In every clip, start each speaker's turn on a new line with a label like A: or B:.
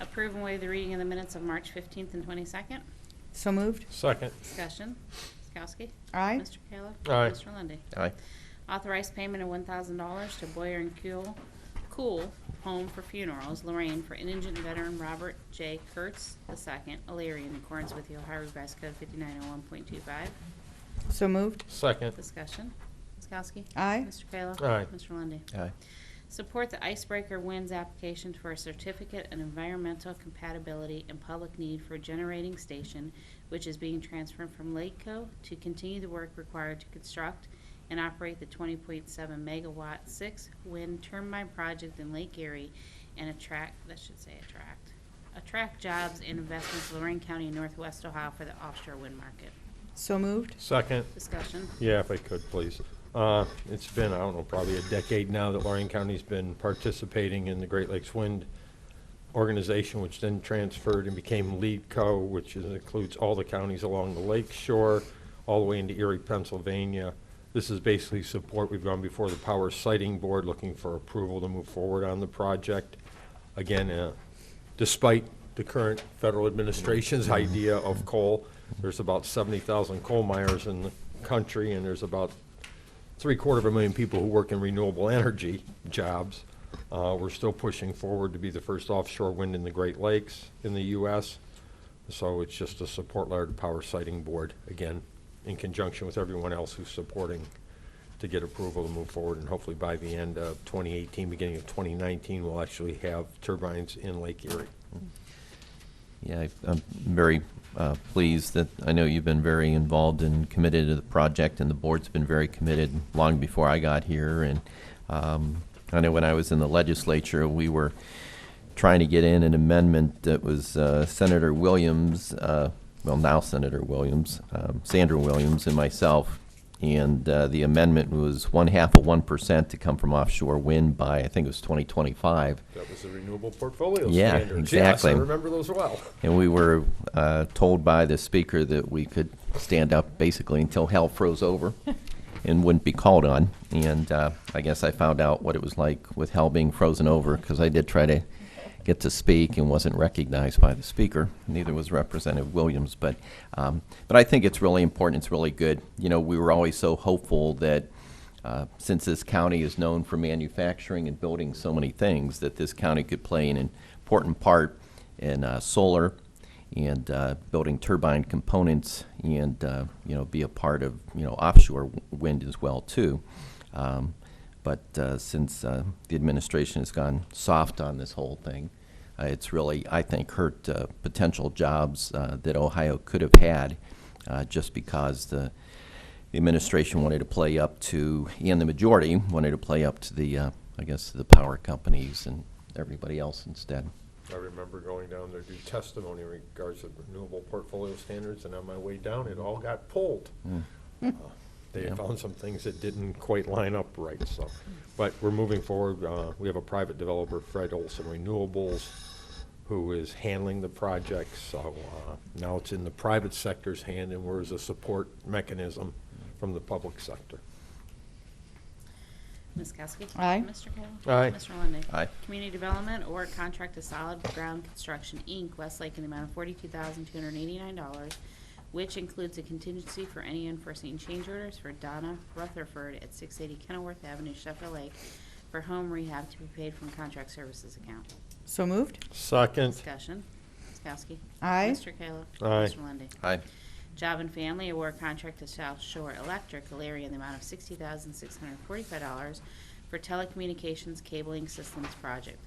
A: Approve and waive the reading of the minutes of March 15th and 22nd.
B: So moved.
C: Second.
A: Discussion. Ms. Kowski?
B: Aye.
A: Mr. Kayla?
C: Aye.
A: Mr. Lundey?
D: Aye.
A: Authorize payment of $1,000 to Boyer and Kuhl, Cool Home for Funerals, Lorraine, for indigent veteran Robert J. Kurtz II, Alaria, in accordance with the Ohio Revised Code 5901.25.
B: So moved.
C: Second.
A: Discussion. Ms. Kowski?
B: Aye.
A: Mr. Kayla?
C: Aye.
A: Mr. Lundey?
D: Aye.
A: Support the Icebreaker Winds application for a certificate in environmental compatibility and public need for a generating station, which is being transferred from Lakeco to continue the work required to construct and operate the 20.7 megawatt six wind turbine project in Lake Erie and attract, that should say attract, attract jobs and investments to Lorraine County and Northwest Ohio for the offshore wind market.
B: So moved.
C: Second.
A: Discussion.
C: Yeah, if I could, please. Uh, It's been, I don't know, probably a decade now that Lorraine County's been participating in the Great Lakes Wind Organization, which then transferred and became Lead Co., which is- includes all the counties along the lake shore, all the way into Erie, Pennsylvania. This is basically support. We've gone before the Power Sighting Board looking for approval to move forward on the project. Again, uh, despite the current federal administration's idea of coal, there's about 70,000 coal miners in the country, and there's about three-quarter of a million people who work in renewable energy jobs. Uh, We're still pushing forward to be the first offshore wind in the Great Lakes in the U.S. So it's just a support letter to Power Sighting Board, again, in conjunction with everyone else who's supporting to get approval to move forward. And hopefully by the end of 2018, beginning of 2019, we'll actually have turbines in Lake Erie.
D: Yeah, I- I'm very uh, pleased that, I know you've been very involved and committed to the project, and the board's been very committed long before I got here. And um, I know when I was in the legislature, we were trying to get in an amendment that was uh, Senator Williams, uh, well, now Senator Williams, um, Sandra Williams and myself, and uh, the amendment was one half of 1% to come from offshore wind by, I think it was 2025.
C: That was the renewable portfolio
D: Yeah,
C: standards. Yes, I
D: exactly.
C: remember those well.
D: And we were uh, told by the speaker that we could stand up basically until hell froze over and wouldn't be called on. And uh, I guess I found out what it was like with hell being frozen over because I did try to get to speak and wasn't recognized by the speaker. Neither was Representative Williams. But, um, but I think it's really important. It's really good. You know, we were always so hopeful that uh, since this county is known for manufacturing and building so many things, that this county could play an important part in uh, solar and uh, building turbine components and, uh, you know, be a part of, you know, offshore w- wind as well, too. Um, But uh, since uh, the administration has gone soft on this whole thing, uh, it's really, I think, hurt uh, potential jobs uh, that Ohio could have had uh, just because the, the administration wanted to play up to, and the majority wanted to play up to the, uh, I guess, the power companies and everybody else instead.
C: I remember going down there to do testimony in regards to renewable portfolio standards, and on my way down, it all got pulled. Uh, They
D: Yeah.
C: found some things that didn't quite line up right, so, but we're moving forward. Uh, We have a private developer, Fred Olson Renewables, who is handling the project, so uh, now it's in the private sector's hand, and we're as a support mechanism from the public sector.
A: Ms. Kowski?
B: Aye.
A: Mr. Kayla?
C: Aye.
A: Mr. Lundey?
D: Aye.
A: Community Development or contract to Solid Ground Construction, Inc., Westlake, in the amount of forty-two thousand two hundred eighty-nine dollars, which includes a contingency for any unforeseen change orders for Donna Rutherford at six eighty Kenilworth Avenue, Sheffield Lake, for home rehab to be paid from contract services account.
B: So moved.
C: Second,
A: Discussion. Ms. Kowski?
B: Aye.
A: Mr. Kayla?
C: Aye.
A: Mr. Lundey?
D: Aye.
A: Job and Family Award Contract to South Shore Electric, Alaria, in the amount of sixty thousand six hundred forty-five dollars for telecommunications cabling systems project.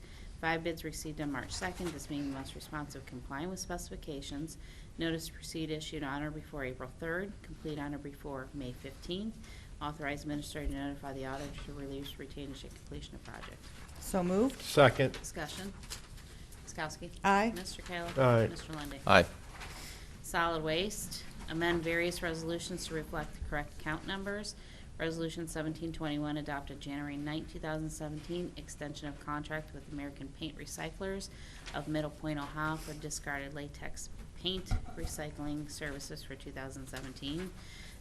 A: Five bids received on March second, this being the most responsive complying with specifications. Notice to proceed issued on or before April third, complete on or before May fifteenth. Authorized administrator to notify the auditor to release retainage at completion of project.
B: So moved.
C: second,
A: Discussion. Ms. Kowski?
B: Aye.
A: Mr. Kayla?
C: Aye.
A: Mr. Lundey?
D: Aye.
A: Solid Waste, amend various resolutions to reflect the correct count numbers. Resolution 1721 adopted January 9, 2017, extension of contract with American Paint Recyclers of Middle Point, Ohio for discarded latex paint recycling services for 2017.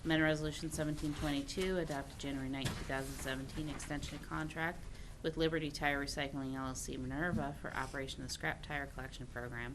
A: Amend Resolution 1722 adopted January 9, 2017, extension of contract with Liberty Tire Recycling LLC Minerva for operation of the scrap tire collection program